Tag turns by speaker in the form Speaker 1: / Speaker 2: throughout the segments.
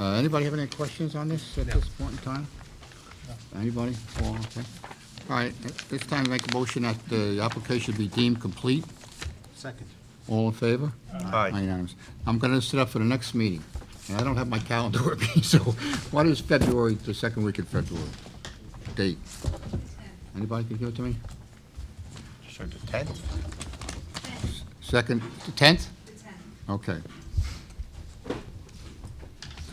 Speaker 1: Uh, Anybody have any questions on this at this point in time? Anybody? All okay. All right, at this time, make a motion that the application be deemed complete.
Speaker 2: Second.
Speaker 1: All in favor?
Speaker 3: Aye.
Speaker 1: Unanimous. I'm going to set up for the next meeting, and I don't have my calendar with me, so what is February, the second week in February? Date? Anybody can give it to me?
Speaker 3: So the tenth?
Speaker 1: Second, the 10th?
Speaker 4: The 10th.
Speaker 1: Okay.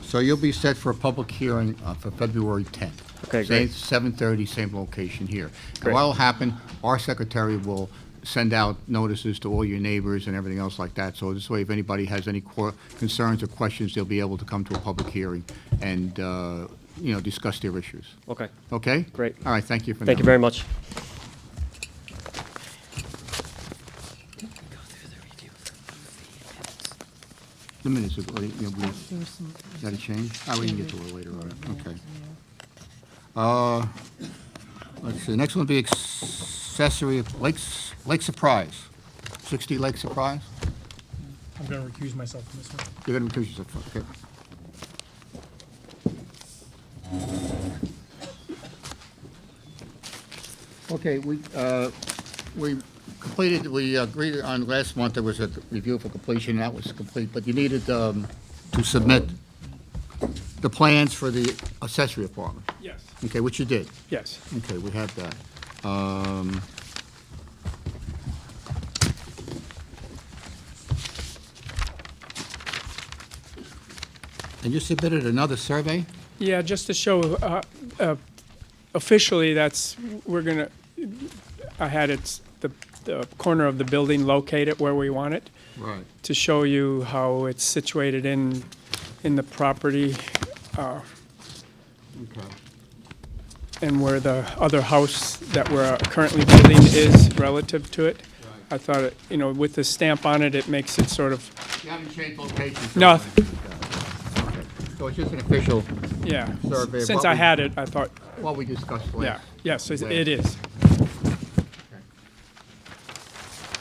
Speaker 1: So you'll be set for a public hearing uh, for February 10th.
Speaker 5: Okay, great.
Speaker 1: Same- 7:30, same location here. And
Speaker 5: Great.
Speaker 1: what'll happen, our secretary will send out notices to all your neighbors and everything else like that. So this way, if anybody has any cor- concerns or questions, they'll be able to come to a public hearing and, uh, you know, discuss their issues.
Speaker 5: Okay,
Speaker 1: Okay?
Speaker 5: Great.
Speaker 1: All right, thank you for now.
Speaker 5: thank you very much.
Speaker 1: The minutes are, you know, we-
Speaker 6: There was some.
Speaker 1: Got to change? Oh, we can get to it later, all right, okay. Uh, Let's see, next one would be accessory of Lakes, Lake Surprise, 60 Lake Surprise?
Speaker 7: I'm gonna recuse myself from this one.
Speaker 1: You're going to recuse yourself, okay. Okay, we, uh, we completed, we agreed on last month, there was a review for completion, that was complete, but you needed um, to submit the plans for the accessory apartment.
Speaker 7: Yes.
Speaker 1: Okay, which you did.
Speaker 7: Yes.
Speaker 1: Okay, we have that. Um, And you submitted another survey?
Speaker 7: Yeah, just to show, uh, uh, officially, that's, we're gonna, I had it's, the, the corner of the building located where we want it,
Speaker 1: Right.
Speaker 7: to show you how it's situated in, in the property, uh,
Speaker 1: Okay.
Speaker 7: and where the other house that we're currently building is relative to it. I thought, it you know, with the stamp on it, it makes it sort of,
Speaker 1: You haven't changed locations?
Speaker 7: No.
Speaker 1: Okay. So it's just an official,
Speaker 7: yeah.
Speaker 1: Survey of
Speaker 7: Since
Speaker 1: what
Speaker 7: I
Speaker 1: we-
Speaker 7: had it, I thought,
Speaker 1: what we discussed last.
Speaker 7: yeah, yes, it it is.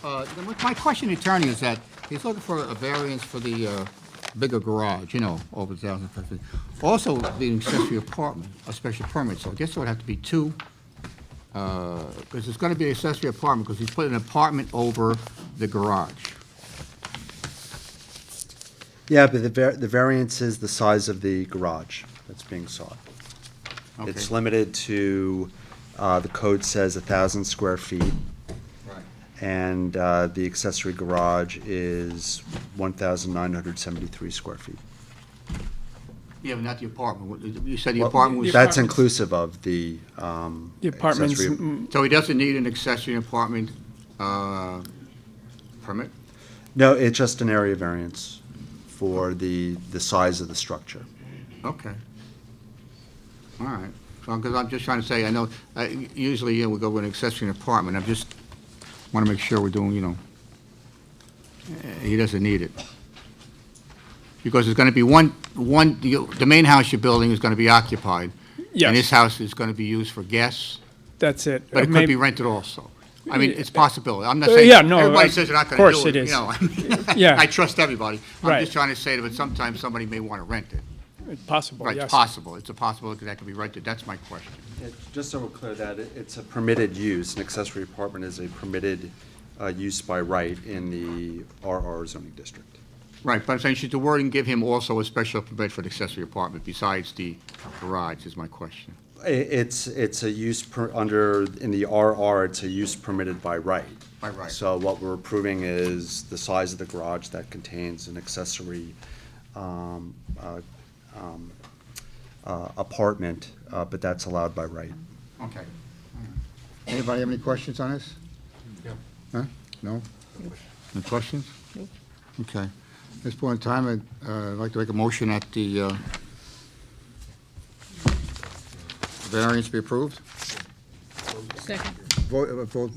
Speaker 1: Uh, then what- My question, to attorney, is that he's looking for a variance for the uh, bigger garage, you know, over 1,000 square feet. Also, the accessory apartment, a special permit, so I guess there would have to be two, because it's going to be an accessory apartment, because he's putting an apartment over the garage.
Speaker 2: Yeah, but the var- the variance is the size of the garage that's being sought. It's
Speaker 1: Okay.
Speaker 2: limited to, uh, the code says a thousand square feet, and, uh, the accessory garage is one thousand nine hundred seventy-three square feet.
Speaker 1: Yeah, but not the apartment. You said the
Speaker 2: Well,
Speaker 1: apartment was...
Speaker 2: That's inclusive of the, um.
Speaker 7: The apartments,
Speaker 2: accessory-
Speaker 7: mm,
Speaker 1: So he doesn't need an accessory apartment uh, permit?
Speaker 2: No, it's just an area variance for the, the size of the structure.
Speaker 1: Okay. All right. Because I'm just trying to say, I know, I- usually, yeah, we go with an accessory apartment. I'm just, want to make sure we're doing, you know, eh, he doesn't need it. Because there's going to be one, one, the the main house you're building is going to be occupied. And this
Speaker 7: yes,
Speaker 1: house is going to be used for guests,
Speaker 7: that's it. Uh,
Speaker 1: but it could
Speaker 7: Maybe-
Speaker 1: be rented also. I mean, it's
Speaker 7: Yeah.
Speaker 1: possibility. I'm not
Speaker 7: Uh,
Speaker 1: saying,
Speaker 7: yeah, no,
Speaker 1: everybody
Speaker 7: I-
Speaker 1: says they're not
Speaker 7: of
Speaker 1: going to
Speaker 7: course
Speaker 1: do it,
Speaker 7: it
Speaker 1: you
Speaker 7: is.
Speaker 1: know.
Speaker 7: Yeah.
Speaker 1: I trust everybody. I'm
Speaker 7: Right.
Speaker 1: just trying to say that, but sometimes somebody may want to rent it.
Speaker 7: Possible,
Speaker 1: Right,
Speaker 7: yes.
Speaker 1: possible, it's a possibility that could be rented, that's my question.
Speaker 2: Yeah, Just so we're clear that it- it's a permitted use, an accessory apartment is a permitted uh, use by right in the RR zoning district.
Speaker 1: Right, but I'm saying, should the wording give him also a special permit for the accessory apartment besides the garage, is my question?
Speaker 2: I- It's, it's a use per, under, in the RR, it's a use permitted by right.
Speaker 1: By right.
Speaker 2: So what we're approving is the size of the garage that contains an accessory um, uh, um, uh, apartment, uh, but that's allowed by right.
Speaker 1: Okay. Anybody have any questions on this? No. Huh? No? Any questions? Okay. At this point in time, I'd, uh, I'd like to make a motion that the, uh, variance be approved.
Speaker 6: Second.
Speaker 1: Vote, uh, vote,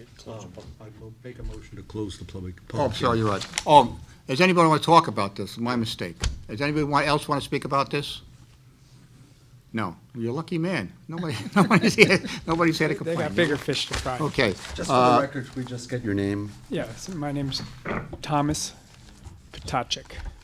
Speaker 8: I make a motion to close the public.
Speaker 1: oh, I'm sorry, you're right. Oh, does anybody want to talk about this? My mistake. Does anybody wa- else want to speak about this? No. You're a lucky man. Nobody, nobody's here, nobody's had a
Speaker 7: They
Speaker 1: complaint.
Speaker 7: got bigger fish to fry.
Speaker 1: Okay.
Speaker 2: Just for
Speaker 1: uh,
Speaker 2: the record, could we just get your name?
Speaker 7: Yes, my name's Thomas Potacek.